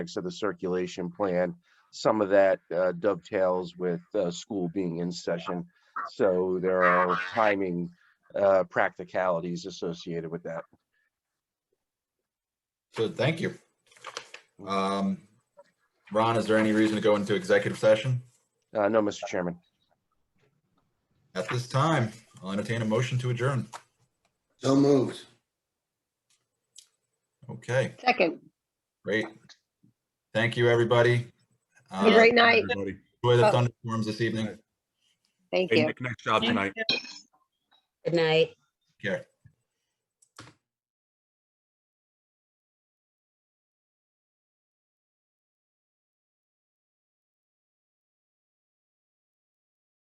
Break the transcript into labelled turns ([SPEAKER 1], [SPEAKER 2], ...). [SPEAKER 1] of the circulation plan. Some of that uh, dovetails with uh, school being in session. So there are timing uh, practicalities associated with that.
[SPEAKER 2] So thank you. Um, Ron, is there any reason to go into executive session
[SPEAKER 1] Uh, No, Mr. Chairman.
[SPEAKER 2] at this time? I'll entertain a motion to adjourn.
[SPEAKER 3] So moved.
[SPEAKER 2] Okay,
[SPEAKER 4] Second.
[SPEAKER 2] great. Thank you, everybody. Uh,
[SPEAKER 4] Have a great night.
[SPEAKER 5] everybody.
[SPEAKER 2] Enjoy the thunderstorms this evening.
[SPEAKER 4] Thank
[SPEAKER 5] Hey,
[SPEAKER 4] you.
[SPEAKER 5] Nick, nice job tonight.
[SPEAKER 6] Good night.
[SPEAKER 2] Take Care.